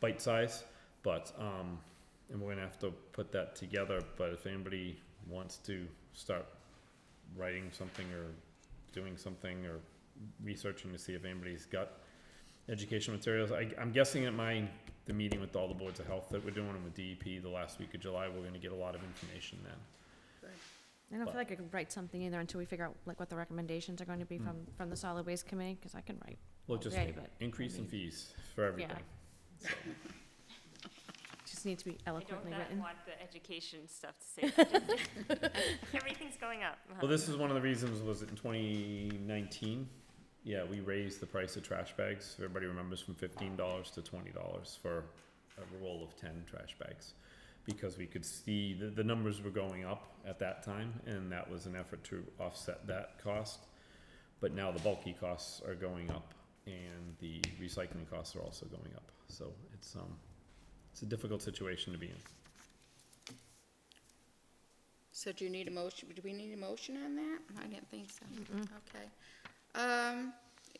bite size, but, um, and we're gonna have to put that together, but if anybody wants to start writing something or doing something or researching to see if anybody's got education materials, I, I'm guessing at my, the meeting with all the boards of health that we're doing and with DEP the last week of July, we're gonna get a lot of information then. I don't But- feel like I can write something either until we figure out like what the recommendations are going to Hmm. be from, from the solid waste committee, cause I can write. Well, just Okay, but- increase in fees for everything. Just needs to be I don't eloquently not written. want the education stuff to say. Everything's going up. Well, this is one of the reasons, was it in twenty nineteen? Yeah, we raised the price of trash bags, if everybody remembers, from fifteen dollars to twenty dollars for a roll of ten trash bags. Because we could see the, the numbers were going up at that time, and that was an effort to offset that cost. But now the bulky costs are going up, and the recycling costs are also going up, so it's, um, it's a difficult situation to be in. So do you need a motion, do we need a motion on that? I didn't think so. Okay. Um,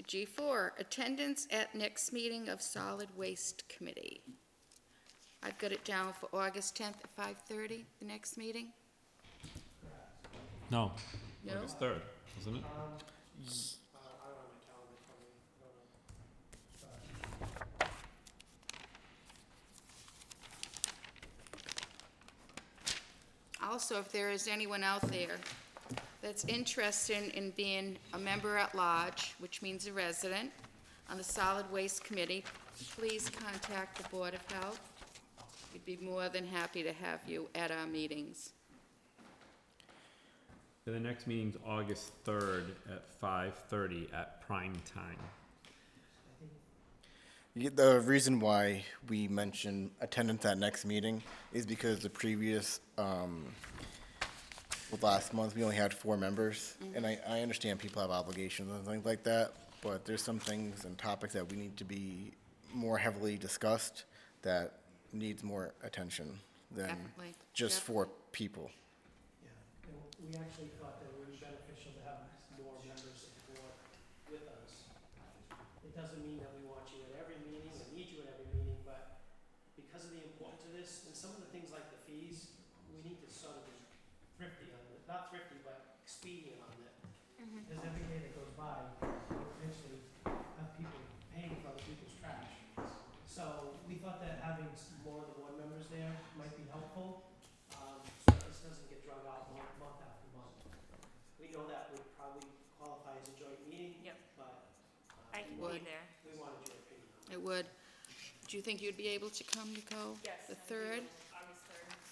G four, attendance at next meeting of solid waste committee. I've got it down for August tenth at five thirty, the next meeting? No. No? August third, isn't it? Also, if there is anyone out there that's interested in being a member at large, which means a resident, on the solid waste committee, please contact the Board of Health. We'd be more than happy to have you at our meetings. So The next meeting's August third at five thirty at prime time. Yeah, The reason why we mention attendance at next meeting is because the previous, um, well, last month, we only had four members. And I, I understand people have obligations and things like that, but there's some things and topics that we need to be more heavily discussed that needs more attention than Definitely. just four people. Yeah, and we actually thought that it would be beneficial to have more members of the board with us. It doesn't mean that we want you at every meeting or need you at every meeting, but because of the importance of this and some of the things like the fees, we need to sort of be thrifty on it, not thrifty, but expedient on it. Because every day that goes by, we potentially have people paying for other people's trash. So we thought that having s- more of the board members there might be helpful um, so that this doesn't get drawn out month, month after month. We know that would probably qualify as a joint meeting, Yep, but um, I can be Would. there. we wanted your opinion on it. It would. Do you think you'd be able to come, Nicole? The third? August third.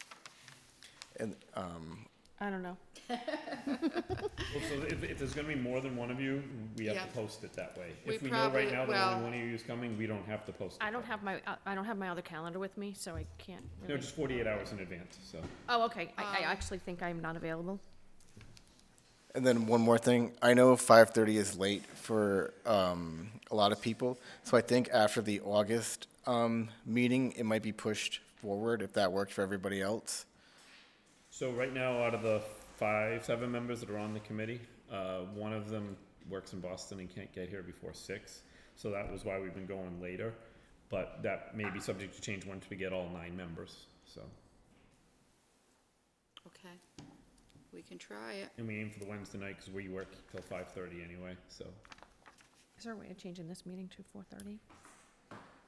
And, um, I don't know. Well, so if, if there's gonna be more than one of you, we have Yeah. to post it that way. We If we know right probably- now that well- only one of you is coming, we don't have to post it. I don't that have my, uh, I don't have my other calendar with me, so I can't way. No, really. just forty-eight hours in advance, so. Oh, okay. I, I Um, actually think I'm not available. And then one more thing. I know 5:30 is late for um, a lot of people, so I think after the August um, meeting, it might be pushed forward if that works for everybody else. So right now, out of the five, seven members that are on the committee, uh, one of them works in Boston and can't get here before six. So that was why we've been going later, but that may be subject to change once we get all nine members, so. Okay. We can try it. And we aim for the Wednesday night because we work till five thirty anyway, so Is there a way of changing this meeting to four thirty?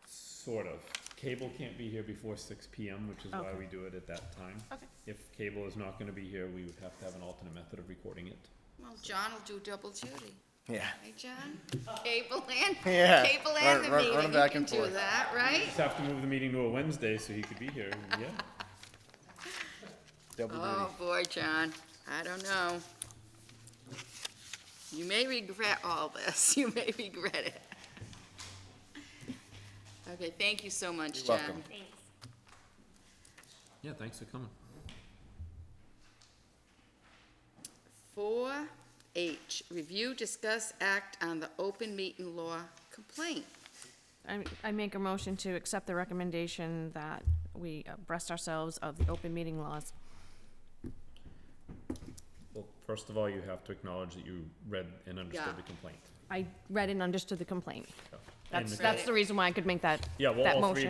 sort of. Cable can't be here before six PM, which is why Okay. we do it at that time. Okay. If cable is not gonna be here, we would have to have an alternate method of recording it. Well, John will do double duty. Yeah. Right, John? Cable and, Yeah. cable Run- and the run- meeting. run You back can and do forth. that, right? Just have to move the meeting to a Wednesday so he could be here, yeah. Double Oh, boy, John, I don't know. You may regret all this, you may regret it. Okay, thank you so much, You're John. welcome. Thanks. Yeah, thanks for coming. Four H, review, discuss, act on the open meeting law complaint. I, I make a motion to accept the recommendation that we abreast ourselves of the open meeting laws. Well, first of all, you have to acknowledge that you read and Yeah. understood the complaint. I read and understood the complaint. so. And That's, the- that's the reason why I could make that, Yeah, well, that all three motion.